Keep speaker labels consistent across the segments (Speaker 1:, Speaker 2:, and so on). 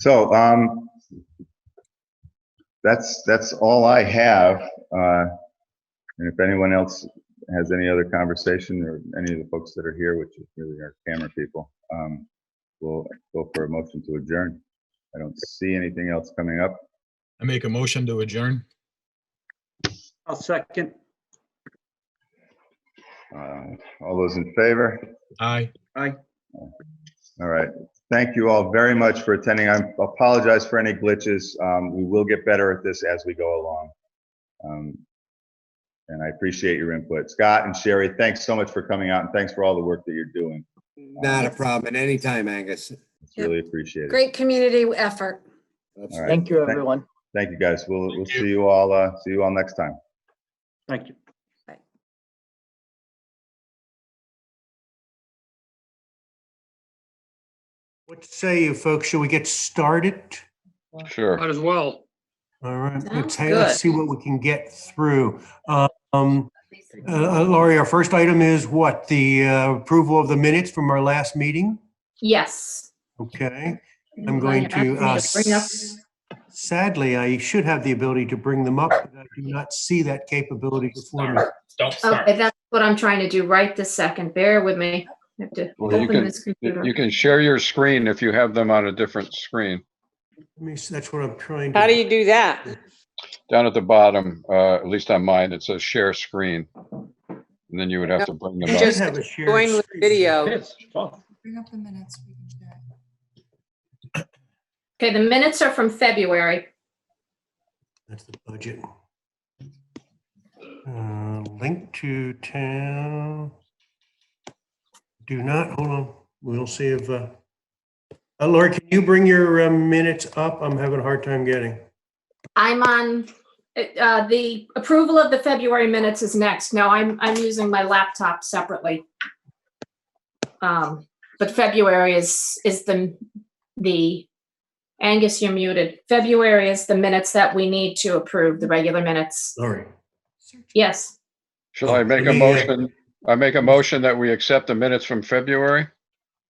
Speaker 1: So, um, that's, that's all I have. Uh, and if anyone else has any other conversation or any of the folks that are here, which is really our camera people, um, we'll go for a motion to adjourn. I don't see anything else coming up.
Speaker 2: I make a motion to adjourn.
Speaker 3: I'll second.
Speaker 1: Uh, all those in favor?
Speaker 2: Aye.
Speaker 1: All right. Thank you all very much for attending. I apologize for any glitches. Um, we will get better at this as we go along. Um, and I appreciate your input. Scott and Sherry, thanks so much for coming out and thanks for all the work that you're doing.
Speaker 4: Not a problem at any time, Angus.
Speaker 1: It's really appreciated.
Speaker 5: Great community effort.
Speaker 4: That's
Speaker 1: All right.
Speaker 6: Thank you,
Speaker 1: Thank-
Speaker 6: everyone.
Speaker 1: Thank you, guys. We'll, we'll
Speaker 2: Thank you.
Speaker 1: see you all, uh, see you all next time.
Speaker 3: Thank you.
Speaker 7: What say you folks? Should we get started?
Speaker 8: Sure.
Speaker 3: Might as well.
Speaker 7: All right,
Speaker 5: Sounds
Speaker 7: let's, let's see
Speaker 5: good.
Speaker 7: what we can get through. Um, uh, Laurie, our first item is what? The uh, approval of the minutes from our last meeting?
Speaker 5: Yes.
Speaker 7: Okay, I'm going to, uh, sadly, I should have the ability to bring them up, but I do not see that capability before me.
Speaker 2: Don't start.
Speaker 5: Okay, oh, that's what I'm trying to do right this second. Bear with me. I have to
Speaker 8: Well, you
Speaker 5: open
Speaker 8: can-
Speaker 5: this computer.
Speaker 8: You can share your screen if you have them on a different screen.
Speaker 7: Let me see, That's what I'm trying
Speaker 9: How do
Speaker 7: to,
Speaker 9: you do that?
Speaker 8: Down at the bottom, uh, at least on mine, it says share screen. And then you would have to bring them
Speaker 7: I
Speaker 9: You
Speaker 7: should
Speaker 8: up.
Speaker 9: just
Speaker 7: have a shared
Speaker 9: Join with
Speaker 7: screen.
Speaker 9: video.
Speaker 3: Yes. well,
Speaker 10: Bring up the minutes, we can check.
Speaker 5: Okay, the minutes are from February.
Speaker 7: That's the budget. Uh, Link to town. Do not, hold on, we'll see if, uh, uh, Laura, can you bring your uh, minutes up? I'm having a hard time getting.
Speaker 5: I'm on, uh, the approval of the February minutes is next. No, I'm, I'm using my laptop separately. Um, but February is, is the, the, Angus, you're muted. February is the minutes that we need to approve, the regular minutes.
Speaker 7: Sorry.
Speaker 10: Search.
Speaker 5: Yes.
Speaker 8: Shall I make a motion? I make a motion that we accept the minutes from February?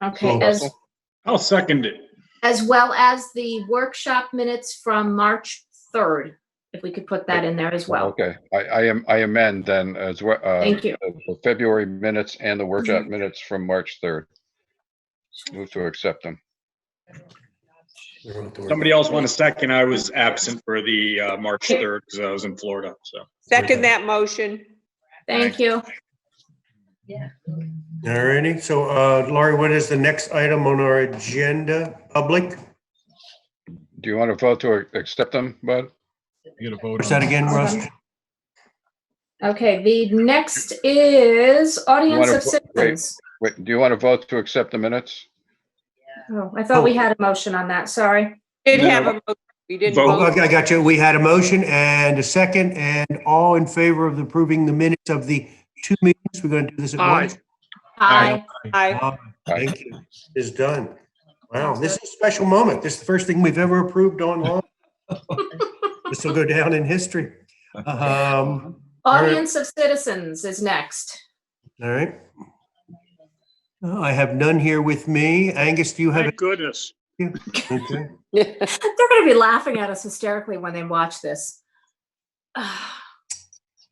Speaker 5: Okay,
Speaker 7: Well,
Speaker 5: as,
Speaker 3: I'll second it.
Speaker 5: as well as the workshop minutes from March 3rd, if we could put that in there as well.
Speaker 8: Okay, I, I am, I amend then as well, uh,
Speaker 5: Thank you. Mm-hmm.
Speaker 8: the the February minutes and the workshop minutes from March 3rd. Move to accept them.
Speaker 3: Somebody else want a second? I was absent for the uh, March 3rd because I was in Florida, so.
Speaker 9: Second that motion.
Speaker 5: Thank you.
Speaker 7: All righty, so uh, Laurie, what is the next item on our agenda? Public?
Speaker 8: Do you want to vote to accept them, Bud?
Speaker 2: You gotta vote
Speaker 7: What's that
Speaker 2: on it.
Speaker 7: again, Russ?
Speaker 5: Okay, the next is audience
Speaker 8: Wanna
Speaker 5: of
Speaker 8: put- wait.
Speaker 5: citizens.
Speaker 8: Wait, do you want to vote to accept the minutes?
Speaker 5: Oh, I thought we had a motion on that, sorry.
Speaker 9: Did
Speaker 3: No.
Speaker 9: have a, mo- you didn't
Speaker 3: Vote.
Speaker 7: Oh,
Speaker 9: vote.
Speaker 7: okay, I got you. We had a motion and a second, and all in favor of approving the minutes of the two meetings. We're going to do this at once.
Speaker 5: Aye.
Speaker 9: Aye.
Speaker 8: Aye.
Speaker 7: Thank you. It's done. Wow, this is a special moment. This is the first thing we've ever approved online. This will go down in history. Um,
Speaker 5: Audience of citizens is next.
Speaker 7: all right. Uh, I have none here with me. Angus, do you have?
Speaker 3: Thank goodness.
Speaker 7: Okay.
Speaker 5: They're gonna be laughing at us hysterically when they watch this.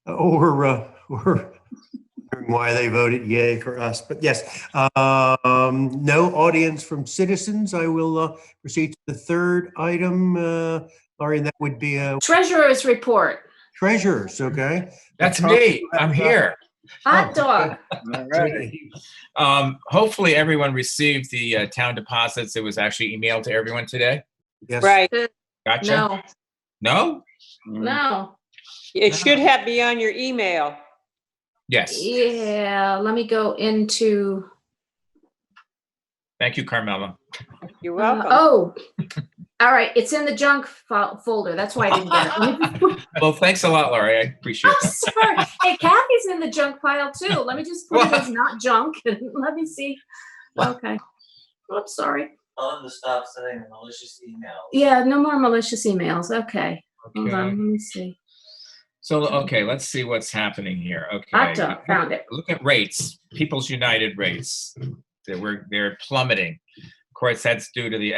Speaker 7: Or, uh, or wondering why they voted yay for us, but yes. Um, no audience from citizens. I will, uh, proceed to the third item, uh, Laurie, and that would be, uh,
Speaker 5: Treasurer's report,
Speaker 7: treasures, okay?
Speaker 11: That's me. I'm here.
Speaker 5: hot dog.
Speaker 11: Um, hopefully everyone received the uh, town deposits. It was actually emailed to everyone today.
Speaker 7: Yes.
Speaker 9: Right.
Speaker 11: Gotcha.
Speaker 5: No,
Speaker 11: No?
Speaker 5: no.
Speaker 9: It should have be on your email.
Speaker 11: Yes.
Speaker 5: Yeah, let me go into.
Speaker 11: Thank you, Carmela.
Speaker 9: You're
Speaker 5: Uh,
Speaker 9: welcome.
Speaker 5: Oh, all right. It's in the junk fol- folder. That's why I didn't get it.
Speaker 11: Well, thanks a lot, Laurie. I appreciate
Speaker 5: I'm
Speaker 11: that.
Speaker 5: sorry. Hey, Kathy's in the junk pile too. Let me just put it as not junk and let me see. Okay. Well, I'm sorry.
Speaker 6: Tell them to stop sending malicious emails.
Speaker 5: Yeah, no more malicious emails. Okay. Hold on. Let
Speaker 11: Okay.
Speaker 5: me see.
Speaker 11: So, okay, let's see what's happening here.
Speaker 5: Hot
Speaker 11: Okay.
Speaker 5: dog. Found it.
Speaker 11: look at rates, People's United rates. They were, they're plummeting. Of course, that's due to the